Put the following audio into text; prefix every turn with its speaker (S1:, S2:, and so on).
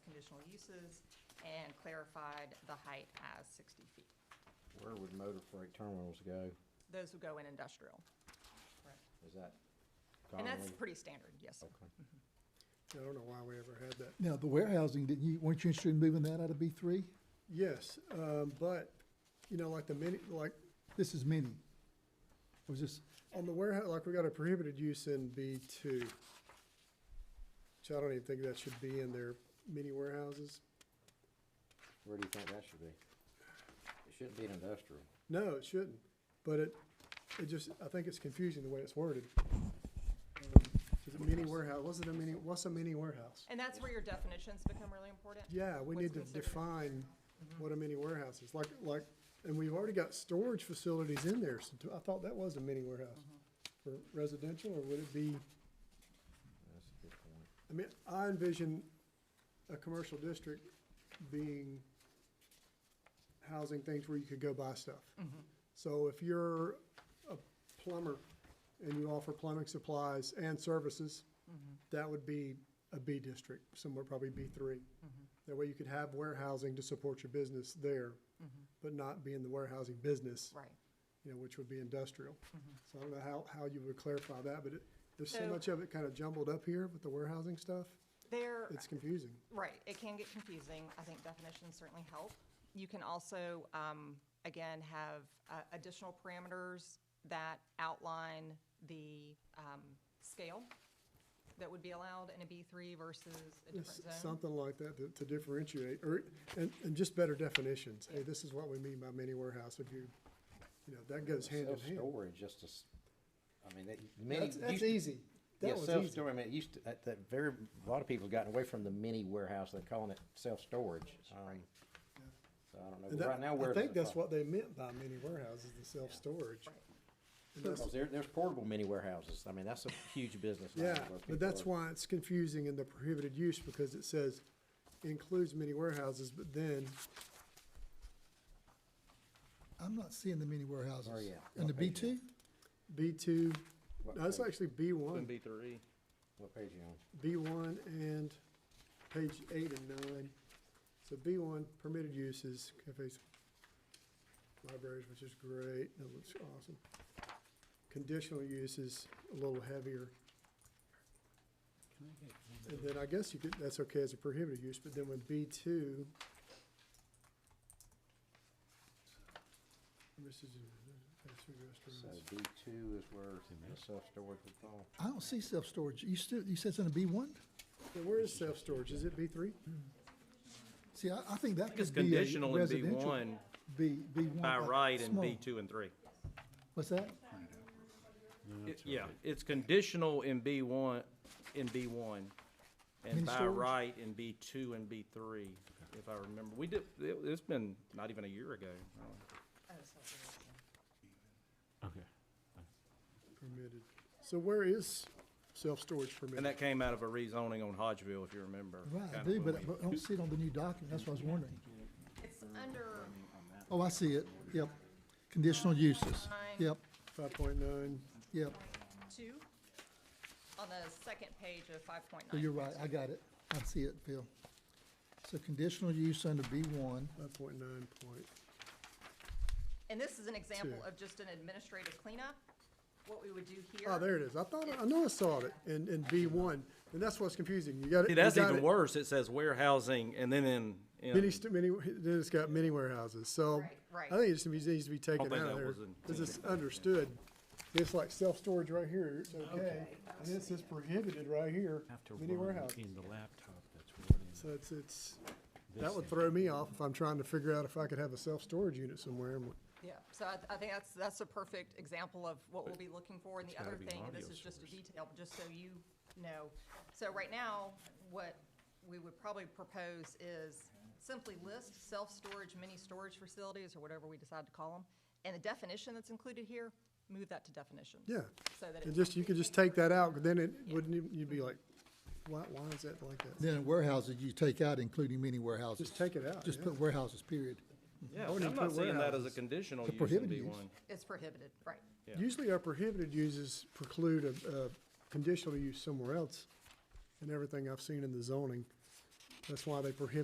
S1: conditional uses and clarified the height as sixty feet.
S2: Where would motor freight terminals go?
S1: Those would go in industrial.
S2: Is that
S1: And
S2: commonly?
S1: that's pretty standard, yes. sir.
S2: Okay.
S3: I don't know why we ever had that.
S4: Now, the warehousing, didn't you, weren't you interested in moving that out of B three?
S3: Yes, um, but, you know, like the mini, like,
S4: This is mini. It was just,
S3: on the warehouse, like, we got a prohibited use in B two. Which I don't even think that should be in their mini warehouses.
S2: Where do you think that should be? It shouldn't be an industrial.
S3: No, it shouldn't, but it, it just, I think it's confusing the way it's worded. Um, Is it mini warehouse, what's it a mini, what's a mini warehouse?
S1: And that's where your definitions become really important.
S3: Yeah, we
S1: What's
S3: need to
S1: considered. Mm-hmm.
S3: define what a mini warehouse is, like, like, and we've already got storage facilities in there, so I thought that was a mini warehouse.
S1: Mm-hmm.
S3: For residential, or would it be,
S2: That's a good point.
S3: I mean, I envision a commercial district being housing things where you could go buy stuff. So if you're a plumber and you offer plumbing supplies and services, that would be a B district, somewhere probably B three. That way you could have warehousing to support your business there, but not be in the warehousing business,
S1: Right.
S3: you know, which would be industrial. So I don't know how, how you would clarify that, but it, there's so
S1: So-
S3: much of it kind of jumbled up here with the warehousing stuff.
S1: There,
S3: It's confusing.
S1: right, it can get confusing. I think definitions certainly help. You can also, um, again, have uh, additional parameters that outline the, um, scale that would be allowed in a B three versus a
S3: Yes,
S1: different zone.
S3: Something like that to- to differentiate, or, and, and just better definitions. Hey, this is what we mean by mini warehouse, if you, you know, that goes hand in hand.
S2: Self-storage, just as, I mean, that. many-
S3: That's, that's
S2: used-
S3: easy.
S2: Yeah,
S3: That was easy.
S2: self-storage, I mean, it used to, that, that very, a lot of people have gotten away from the mini warehouse, they're calling it self-storage. Um, So I don't know,
S3: And
S2: but
S3: that-
S2: right now, where
S3: I
S2: does it
S3: think that's
S2: fall?
S3: what they meant by mini warehouses, the self-storage.
S1: Right.
S3: And that's-
S2: Because there, there's portable mini warehouses. I mean, that's a huge business. line
S3: Yeah,
S2: where people
S3: but that's
S2: are-
S3: why it's confusing in the prohibited use, because it says includes mini warehouses, but then,
S4: I'm not seeing the mini warehouses.
S2: Oh, yeah.
S4: In the
S2: What page
S4: B
S2: is that?
S4: two?
S3: B two,
S2: What
S3: no, it's
S2: page?
S3: actually B one.
S5: B three.
S2: What page you on?
S3: B1 and page eight and nine. So B1, permitted uses, cafes, libraries, which is great, that looks awesome. Conditional uses, a little heavier. And then I guess you could, that's okay as a prohibited use, but then with B2. This is a fast food
S2: So
S3: restaurants.
S2: B two is where the self-storage would fall.
S4: I don't see self-storage. You still, you said it's in a B one?
S3: Now, where is self-storage? Is it B3?
S4: See, I, I think that
S5: It's
S4: could be a
S5: conditional in B
S4: residential.
S5: one
S4: B, B one.
S5: by
S4: like
S5: right and
S4: small.
S5: B two and three.
S4: What's that?
S5: It- Yeah, it's conditional in B one, in B one, and
S4: Mini
S5: by
S4: storage?
S5: right in B two and B three, if I remember. We did, it, it's been not even a year ago.
S1: Oh, self-storage, yeah.
S6: Okay.
S3: Permitted. So where is self-storage permitted?
S5: And that came out of a rezoning on Hodgeville, if you remember.
S4: Right, I
S5: kind
S4: do,
S5: of when
S4: but I
S5: we-
S4: but I don't see it on the new document. That's what I was wondering.
S1: It's
S3: Mm.
S1: under
S4: Oh, I see it. Yep. Conditional uses.
S1: Fine.
S4: Yep,
S3: Five point nine,
S4: yep.
S1: two on the second page of five point
S3: Oh,
S4: So you're
S1: nine.
S4: right. I got it. I see it, Phil. So conditional use under B one.
S3: five point nine point, Ah,
S1: And this is an example
S3: Two.
S1: of just an administrative cleanup, what we would do here.
S3: oh, there it is, I thought, I know I saw it in, in B one, and that's what's confusing, you got it.
S5: See,
S3: you
S5: that's
S3: got
S5: even
S3: it.
S5: worse. It says warehousing and then in, in.
S3: Many, st- many, then it's got many warehouses, so.
S1: Right, right.
S3: I think it just needs needs to be taken
S5: think
S3: out
S5: that
S3: of there,
S5: was in-
S3: cause it's understood, it's like self-storage right here, it's okay, and this is prohibited right here,
S6: After
S3: mini
S6: one
S3: warehouses.
S6: in the laptop, that's what it is.
S3: So it's, it's, that
S6: This
S3: would
S6: thing.
S3: throw me off if I'm trying to figure out if I could have a self-storage unit somewhere, I'm like,
S1: Yeah, so I, I think that's, that's a perfect example of what we'll be looking for, and the other thing, and this is just a detail, just so you know. So right now, what we would probably propose is simply list self-storage, mini-storage facilities, or whatever we decide to call them, and the definition that's included here, move that to definitions.
S3: Yeah.
S1: So that
S3: And
S1: it's.
S3: just, you could just take that out, 'cause then it wouldn't, even- you'd be like, why, why is that like that?
S4: Then in warehouses, you take out including mini warehouses.
S3: Just take it out,
S4: Just
S3: yeah.
S4: put warehouses, period.
S5: Yeah,
S3: wouldn't
S5: I'm
S3: even
S5: not
S3: put
S5: seeing that as a
S3: warehouses.
S5: conditional
S4: The
S5: use in
S4: prohibited
S5: B
S4: use.
S5: one.
S1: It's prohibited, right.
S5: Yeah.
S3: Usually our prohibited uses preclude a, a conditional use somewhere else, and everything I've seen in the zoning, that's why they prohibit